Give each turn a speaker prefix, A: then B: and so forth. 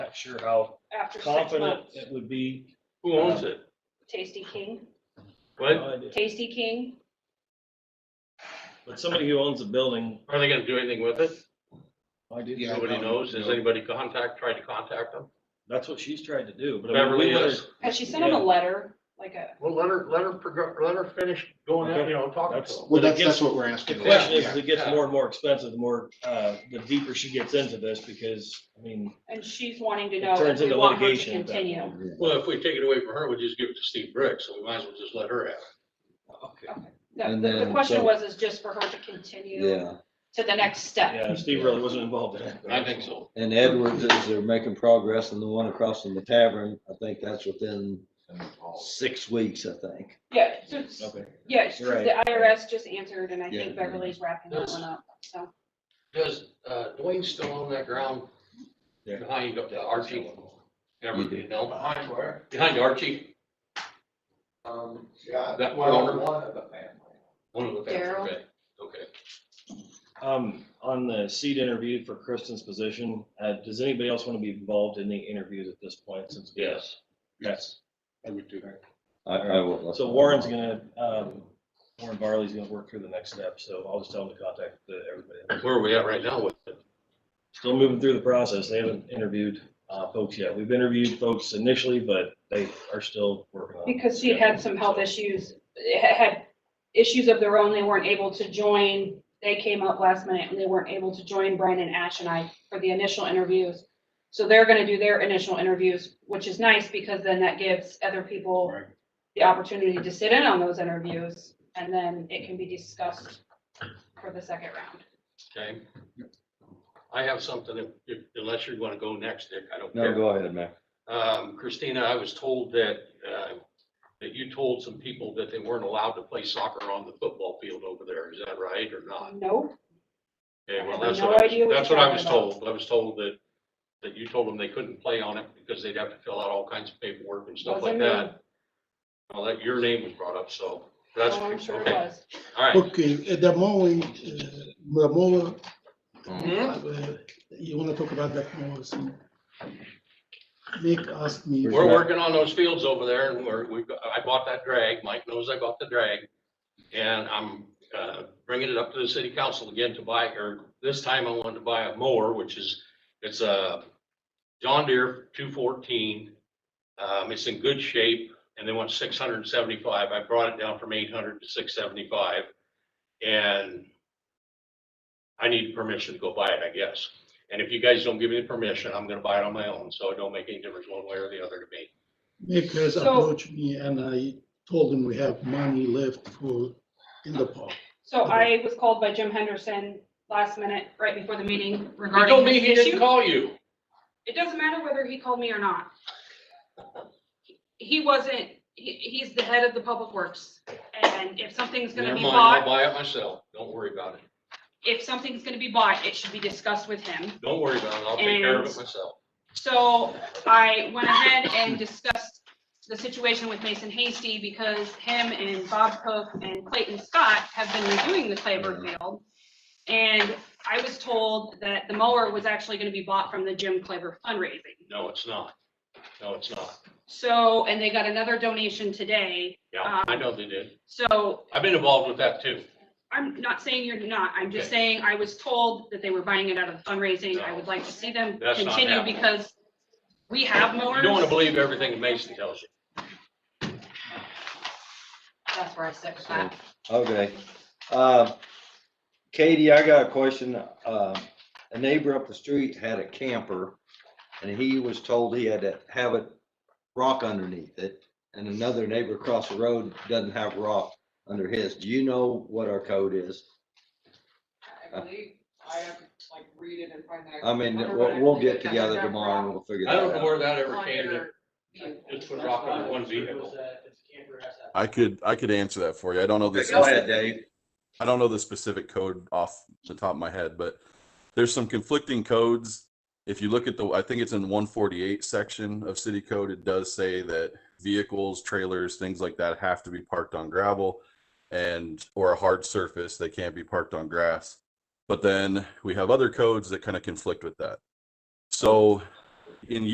A: not sure how
B: after six
A: confident
B: months.
A: it would be.
C: Who owns it?
B: Tasty King,
C: What?
B: Tasty King,
A: But somebody who owns a building.
C: Are they gonna do anything with it?
A: I did-
D: Yeah,
C: Nobody
D: no,
C: knows. Has
D: no.
C: anybody contact, tried to contact them?
A: That's what she's tried to do, but. I mean, we
C: Beverly
A: let her-
C: is.
B: has she sent him a
A: Yeah.
B: letter, like a,
C: Well, let her, let her, prog- let her finish going out, you know, talking to
A: That's-
C: them.
A: But
D: Well,
A: it
D: that's,
A: gets-
D: that's what we're
A: The
D: asking.
A: question is, as it gets
C: Yeah.
A: more and more expensive, the more, uh, the deeper she gets into this, because, I mean,
B: and she's wanting to
A: It
B: know if
A: turns
B: we
A: into
B: want her to
A: litigation at that
B: continue.
C: Well, if we take it away from her, we just give it to Steve Brick, so we might as well just let her have it.
B: The,
D: And
B: the- the
D: then-
B: question
D: so-
B: was, is just for her to continue
E: Yeah,
B: to the next step.
A: yeah, Steve really wasn't involved in it.
C: I think so.
E: and Edwards is, they're making progress and the one across from the tavern, I think that's within six weeks, I think.
B: Yeah, so it's-
A: Okay.
B: yeah, it's true.
A: Right.
B: the IRS just answered, and I
E: Yeah.
B: think Beverly's wrapping that one up, so.
C: Does, uh, Dwayne still own that ground?
A: Yeah.
C: Behind the Archie? Ever,
E: You do.
C: you know,
F: Behind where?
C: behind Archie,
F: Um, yeah,
C: That
F: well,
C: corner.
F: one of the family.
C: one of the. families,
B: Daryl.
C: okay, Okay.
A: Um, on the seat interview for Kristen's position, uh, does anybody else want to be involved in the interviews at this point since?
C: Yes.
A: Yes.
D: I would do.
E: I, I will.
A: So Warren's gonna, um, Warren Barley's gonna work through the next step, so I'll just tell him to contact the, everybody.
C: Where are we at right now with it?
A: Still moving through the process. They haven't interviewed, uh, folks yet. We've interviewed folks initially, but they are still working on.
B: Because she had some health issues, ha- had issues of their own, they weren't able to join. They came up last minute and they weren't able to join Brian and Ash and I for the initial interviews. So they're gonna do their initial interviews, which is nice because then that gives other people
C: Right.
B: the opportunity to sit in on those interviews and then it can be discussed for the second round.
C: Okay. I have something, if- if- unless you want to go next, Dick, I don't
E: No,
C: care.
E: go ahead, man.
C: Um, Christina, I was told that, uh, that you told some people that they weren't allowed to play soccer on the football field over there. Is that right or not?
B: Uh, Nope,
C: Okay,
B: I
C: well,
B: have
C: that's
B: no
C: what I
B: idea
C: was,
B: what
C: that's
B: you're
C: what I was
B: talking about.
C: told. I was told that, that you told them they couldn't play on it because they'd have to fill out all kinds of paperwork and stuff like
B: Wasn't
C: that. Well, that, your name was brought up, so that's,
B: Oh, I'm sure it
C: okay,
B: was.
C: all right.
G: Okay, uh, the mowing, uh, the mower,
E: Hmm?
C: Mhm.
G: uh, you wanna talk about that mower soon? Nick asked me.
C: We're working on those fields over there and we're, we've, got- I bought that drag. Mike knows I bought the drag. And I'm, uh, bringing it up to the city council again to buy, or this time I wanted to buy a mower, which is, it's a John Deere two fourteen. Um, it's in good shape and they want six hundred and seventy-five. I brought it down from eight hundred to six seventy-five. And I need permission to go buy it, I guess. And if you guys don't give me the permission, I'm gonna buy it on my own, so it don't make any difference one way or the other to me.
G: Nick has
B: So-
G: approached me and I told him we have money left for, in the park.
B: So I was called by Jim Henderson last minute, right before the meeting
C: He
B: regarding
C: told me
B: this
C: he didn't
B: issue.
C: call you.
B: It doesn't matter whether he called me or not. He wasn't, he, he's the head of the public works, and if something's gonna
C: Never
B: be
C: mind, I'll
B: bought,
C: buy it myself. Don't worry about it.
B: if something's gonna be bought, it should be discussed with him.
C: Don't worry about it. I'll take care of it
B: And-
C: myself.
B: So I went ahead and discussed the situation with Mason Hasty because him and Bob Cook and Clayton Scott have been reviewing the Claver field. And I was told that the mower was actually gonna be bought from the Jim Claver fundraising.
C: No, it's not. No, it's not.
B: So, and they got another donation today.
C: Yeah, I know they did.
B: So
C: I've been involved with that too.
B: I'm not saying you're not, I'm just
C: Okay.
B: saying I was told that they were buying it out of fundraising. I
C: No.
B: would like to see them
C: That's not
B: continue
C: happening.
B: because we have mowers.
C: You don't want to believe everything Mason tells you.
B: That's where I stick with
E: So,
B: that.
E: Okay. Uh, Katie, I got a question. Uh, A neighbor up the street had a camper and he was told he had to have it rock underneath it. And another neighbor across the road doesn't have rock under his. Do you know what our code is?
H: I believe, I have to like read it and find out.
E: I mean,
H: wonder what
E: we'll,
H: I
E: we'll
H: believe
E: get
H: it doesn't
E: together
H: have
E: tomorrow and
H: rock
E: we'll figure
C: I don't
E: that
C: know
E: out.
C: where that ever
H: on
C: came to,
H: your vehicle.
C: just put rock on one vehicle.
I: I could, I could answer that for you. I don't know this.
E: Go ahead, Dave.
I: I don't know the specific code off the top of my head, but there's some conflicting codes. If you look at the, I think it's in one forty-eight section of city code, it does say that vehicles, trailers, things like that have to be parked on gravel and, or a hard surface, they can't be parked on grass. But then we have other codes that kind of conflict with that. So in